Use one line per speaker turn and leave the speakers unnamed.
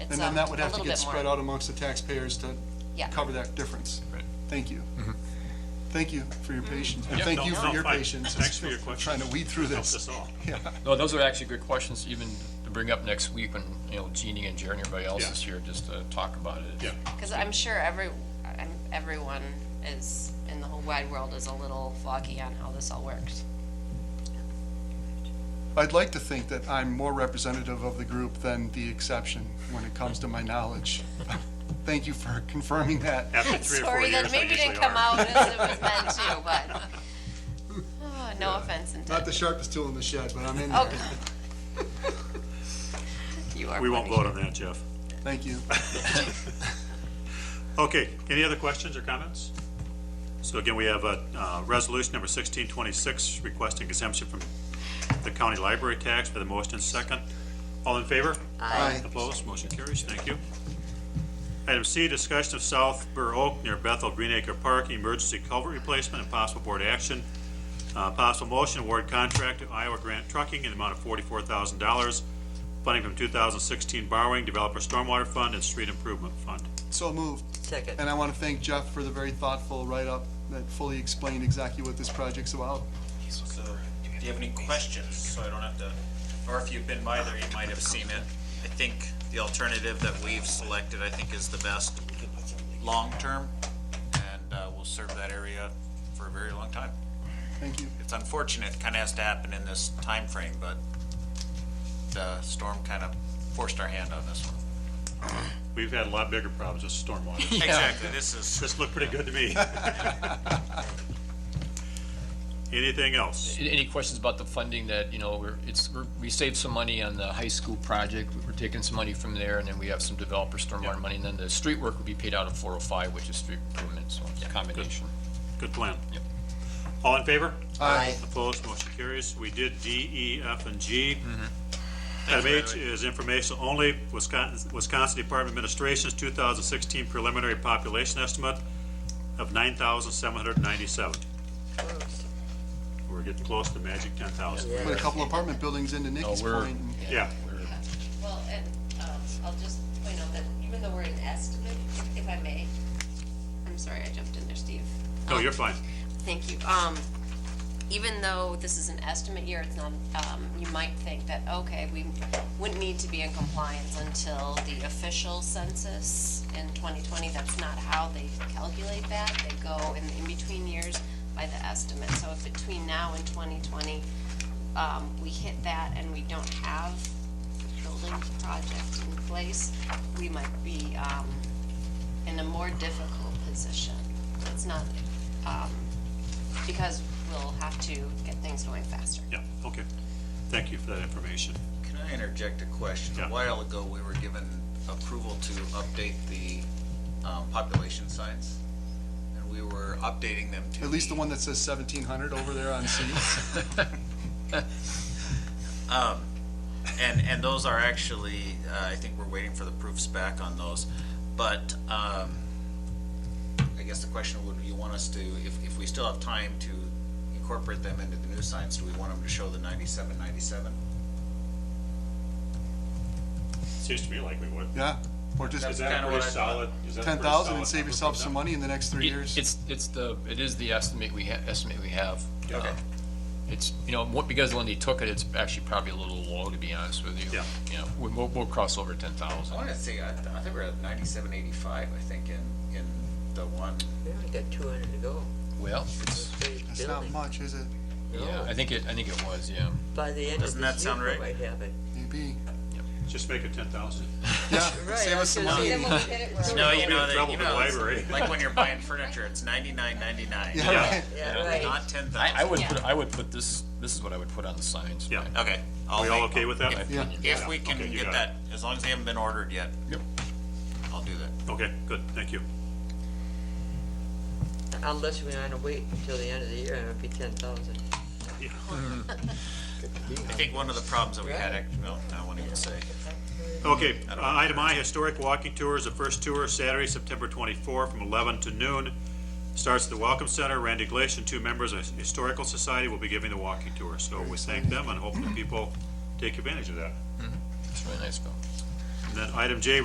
it's
And
um,
then
a
that would have to
little
get
bit
spread
more.
out amongst the taxpayers to
Yeah.
cover that difference.
Right.
Thank you. Thank you
Mm-hmm.
for your patience, and
Mm-hmm. Yeah,
thank
no,
you for
no,
your
fine.
patience.
Thanks for your questions.
Trying to weed through
Helped
this.
us all.
Yeah,
No, those are actually good questions even to bring up next week when, you know, Jeannie and Jerry and everybody else
Yeah.
is here just to talk about it.
Yeah.
Because I'm sure every, I'm, everyone is, in the whole wide world is a little foggy on how this all works.
I'd like to think that I'm more representative of the group than the exception when it comes to my knowledge. Thank you for confirming that.
After three or four
Sorry
years,
that
they
maybe
usually
didn't come
are.
out as it was meant to, but, oh, no offense
Not the
intended.
sharpest tool in the shed, but I'm in
Oh,
there.
God. You are
We won't
funny.
vote on that, Jeff.
Thank you.
Okay, any other questions or comments? So again, we have a uh, resolution number 1626 requesting exemption from the county library tax for the motion and second. All in favor?
Aye.
Opposed? Motion carries. Thank you. Item C, discussion of South Burr Oak near Bethel Greenacre Park, emergency culvert replacement and possible board action. Uh, Possible motion, award contract to Iowa Grant Trucking in the amount of forty-four thousand dollars, funding from two thousand sixteen borrowing, developer stormwater fund and street improvement fund.
So moved.
Second.
And I want to thank Jeff for the very thoughtful write-up that fully explained exactly what this project's about.
So, do you have any questions, so I don't have to, or if you've been by there, you might have seen it. I think the alternative that we've selected, I think, is the best long-term, and uh, will serve that area for a very long time.
Thank you.
It's unfortunate, kind of has to happen in this time frame, but the storm kind of forced our hand on this one.
We've had a lot bigger problems with stormwater.
Exactly, this is,
This looked pretty good to me. Anything else?
A- Any questions about the funding that, you know, we're, it's, we're- we saved some money on the high school project. We're taking some money from there and then we have some developer
Yeah.
stormwater money. And then the street work would be paid out of four oh five, which is street improvement, so it's a combination.
Good plan.
Yep.
All in favor?
Aye.
Opposed, motion carries. We did D, E, F, and G. Item H is informational only, Wisconsin, Wisconsin Department of Administration's 2016 preliminary population estimate of 9,797. We're getting close to magic 10,000.
Put a couple apartment buildings into
No,
Nikki's
we're,
point. and-
Yeah.
we're-
Well, and um, I'll just point out that even though we're in estimate, if- if I may, I'm sorry, I jumped in there, Steve.
No, you're fine.
Thank you. Um, Even though this is an estimate year, it's not, um, you might think that, okay, we wouldn't need to be in compliance until the official census in 2020. That's not how they calculate that. They go in, in between years by the estimate. So if between now and 2020, um, we hit that and we don't have the building project in place, we might be, um, in a more difficult position. It's not, um, because we'll have to get things going faster.
Yeah, okay. Thank you for that information.
can I interject a question?
Yeah.
A while ago, we were given approval to update the um, population signs, and we were updating them to.
At least the
be-
one that says 1700 over there on C.
And, and those are actually, uh, I think we're waiting for the proofs back on those. But, um, I guess the question would, you want us to, if, if we still have time to incorporate them into the new signs, do we want them to show the ninety-seven, ninety-seven?
Seems to me like we would.
Yeah, or just
Is
That's
that
kinda
a
what
pretty
I thought.
solid? is that a pretty
10,000 and
solid
save
number
yourself
for
some
them?
money in the next three
it-
years.
It's, it's the, it is the estimate we, ha- estimate we have.
Okay.
Um, It's, you know, what- because Lindy took it, it's actually probably a little low, to be honest with you.
Yeah.
You know, we- we'll, we'll cross over ten
I
thousand.
wanted to say, I, th- I think we're at ninety-seven, eighty-five, I think, in, in the one.
We only got two hundred to go.
Well, it's,
Big
That's not
building.
much, is it?
yeah, I think it, I think it was, yeah.
By the end of this
Doesn't
year,
that sound
we
right?
might have it.
Maybe.
Just make it 10,000.
Yeah,
Right,
save us some
I
money.
was gonna
Yeah,
No, you
We're
know,
in
that,
trouble
you
with the
know,
library.
it's like when you're buying furniture, it's ninety-nine, ninety-nine.
right.
Yeah, right.
Not ten
I, I
thousand.
would put, I would put this, this is what I would put on the signs.
Yeah.
right?
Okay.
Are we all okay with that?
Yeah.
If we can
Okay, you
get
got
that, as long as they haven't been ordered yet.
Yep.
I'll do that.
Okay, good, thank you.
Unless we're gonna wait until the end of the year, and it'll be ten thousand.
I think one of the problems that we had, act- no, I won't even say.
Okay, uh, item I, historic walking tours, the first tour, Saturday, September 24, from 11 to noon. Starts at the Welcome Center, Randy Glacier and two members of Historical Society will be giving the walking tour. So we thank them, and hopefully people take advantage of that.
It's really nice, Bill.
And then item J,